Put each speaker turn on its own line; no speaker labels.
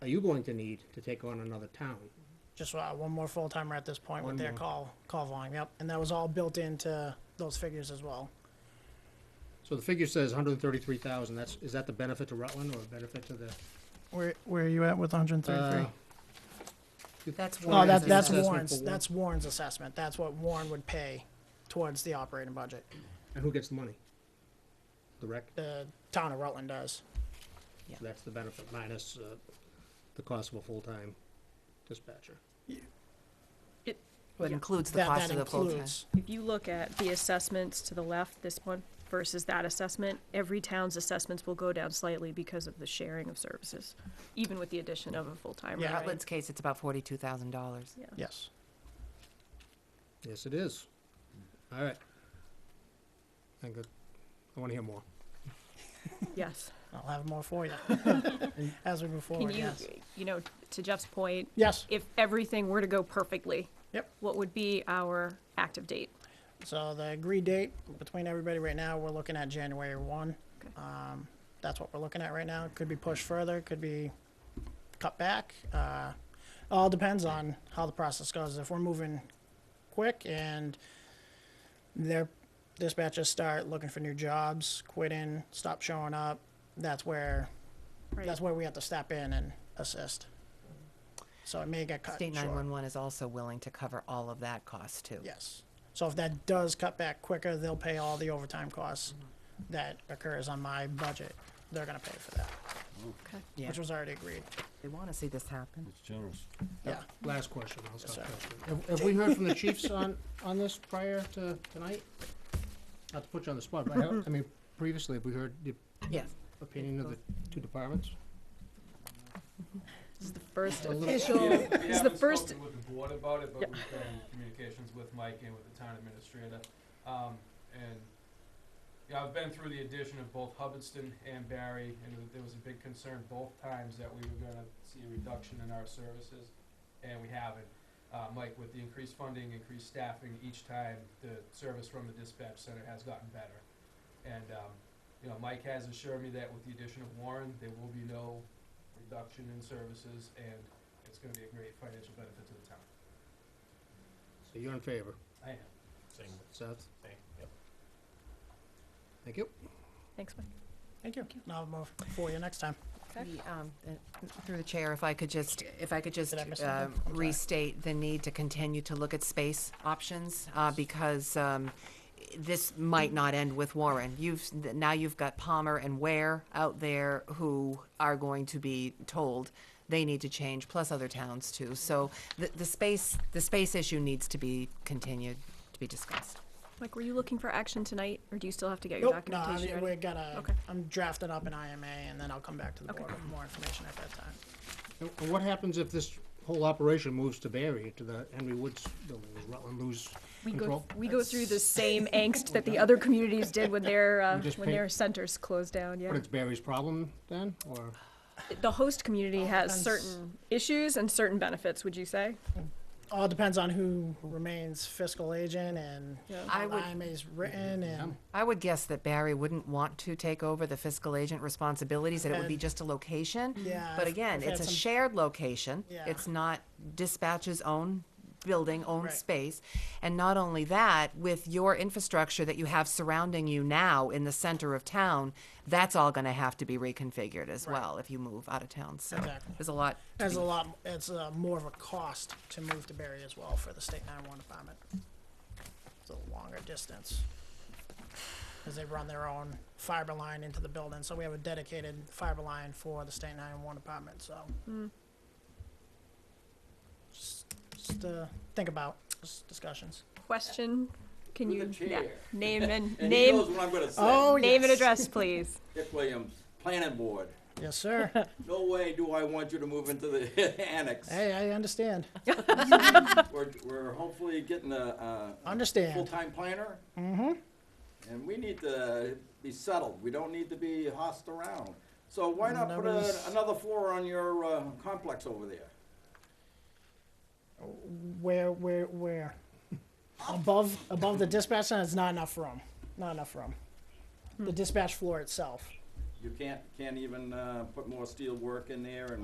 are you going to need to take on another town?
Just uh, one more full-timer at this point
One
with their
more.
call, call volume, yep. And that was all built into those figures as well.
So the figure says hundred and thirty-three thousand, that's, is that the benefit to Rutland or a benefit to the?
Where, where are you at with hundred and
Uh,
That's
No,
Warren's
oh, that, that's
assessment for
Warren's,
Warren.
that's Warren's assessment. That's what Warren would pay towards the operating budget.
And who gets the money? The rec,
The town of Rutland does.
So that's the benefit minus, uh, the cost of a full-time dispatcher.
What includes the
That,
cost
that
of the full-time.
includes,
If you look at the assessments to the left, this one versus that assessment, every town's assessments will go down slightly because of the sharing of services, even with the addition of a full-timer.
Yeah.
right?
Rutland's case, it's about forty-two thousand dollars.
Yeah.
yes.
Yes, it is. All right. I think that- I wanna hear more.
Yes.
I'll have more for you as we move
Can
forward,
you,
yes.
you know, to Jeff's point,
Yes,
if everything were to go perfectly,
yep.
what would be our active date?
So the agreed date between everybody right now, we're looking at January one.
Okay.
Um, that's what we're looking at right now. Could be pushed further, could be cut back. Uh, all depends on how the process goes. If we're moving quick and their dispatchers start looking for new jobs, quitting, stop showing up, that's where,
Right.
that's where we have to step in and assist. So it may get cut
State
short.
nine-one-one is also willing to cover all of that cost too.
Yes. So if that does cut back quicker, they'll pay all the overtime costs that occurs on my budget. They're gonna pay for that,
Okay.
Yeah.
which was already agreed.
They wanna see this happen.
It's generous.
Yeah.
Last question, I'll stop
sir.
questioning. Have- Have we heard from the chiefs on, on this prior to tonight? Not to put you on the spot, but I, have- I mean, previously, have we heard the
Yes.
opinion of the two departments?
This is the first
A little-
official,
We haven't- we
this is the
haven't
first.
spoken with the board about it,
Yeah.
but we've been in communications with Mike and with the town administrator. Um, and, you know, I've been through the addition of both Hubbardston and Barry, and there- there was a big concern both times that we were gonna see a reduction in our services, and we haven't. Uh, Mike, with the increased funding, increased staffing, each time the service from the dispatch center has gotten better. And, um, you know, Mike has assured me that with the addition of Warren, there will be no reduction in services, and it's gonna be a great financial benefit to the town.
So you're in favor,
I am.
Seth? Thank you.
Thanks, Mike.
Thank you. Now I'll move for you next time.
The, um, uh, Through the chair, if I could just, if I could just
Did I miss
um,
something? I'm sorry.
restate the need to continue to look at space options, uh, because um, this might not end with Warren. You've, s- now you've got Palmer and Ware out there who are going to be told they need to change, plus other towns too. So the, the space, the space issue needs to be continued, to be discussed.
Mike, were you looking for action tonight, or do you still have to get your
Nope, no, I
documentation
mean,
ready?
we gotta,
Okay.
I'm drafting up an IMA and then I'll come back to the
Okay.
board with more information at that time.
And and what happens if this whole operation moves to Barry, to the Henry Woods building? Does Rutland lose
We go,
control?
we go through the same angst that the other communities did when their, uh,
We just
when
paint-
their centers closed down, yeah.
But it's Barry's problem then, or?
The host
Oh,
community has
depends.
certain issues and certain benefits, would you say?
All depends on who remains fiscal agent and
Yeah.
I
how the
would-
IMA's written and,
I would guess that Barry wouldn't want to take over the fiscal agent responsibilities, that it would be
And-
just a location.
Yeah,
But
I've-
again,
I've had
it's a
some-
shared location.
Yeah.
It's not dispatch's own building, own
Right.
space. And not only that, with your infrastructure that you have surrounding you now in the center of town, that's all gonna have to be reconfigured as
Right.
well if you move out of town, so
Exactly.
there's a lot. to
there's a
be-
lot, it's uh more of a cost to move to Barry as well for the state nine-one department. It's a longer distance. Cause they run their own fiber line into the building, so we have a dedicated fiber line for the state nine-one department, so. Just, just, uh, think about, just discussions.
Question, can
Through
you,
the
yeah,
chair.
name and,
And he knows
name,
what I'm gonna
Oh,
say.
name and
yes.
address, please.
Dick Williams, planning board.
Yes, sir.
No way do I want you to move into the annex.
Hey, I understand,
We're, we're hopefully getting a, a- a
understand.
full-time planner. Mm-hmm. And we need to be settled. We don't need to be hossed around. So why not put a-
Nobody's-
another floor on your, uh, complex over there?
Where, where, where? Above, above the dispatch center, it's not enough room, not enough room. The dispatch floor itself.
You can't, can't even, uh, put more steel work in there and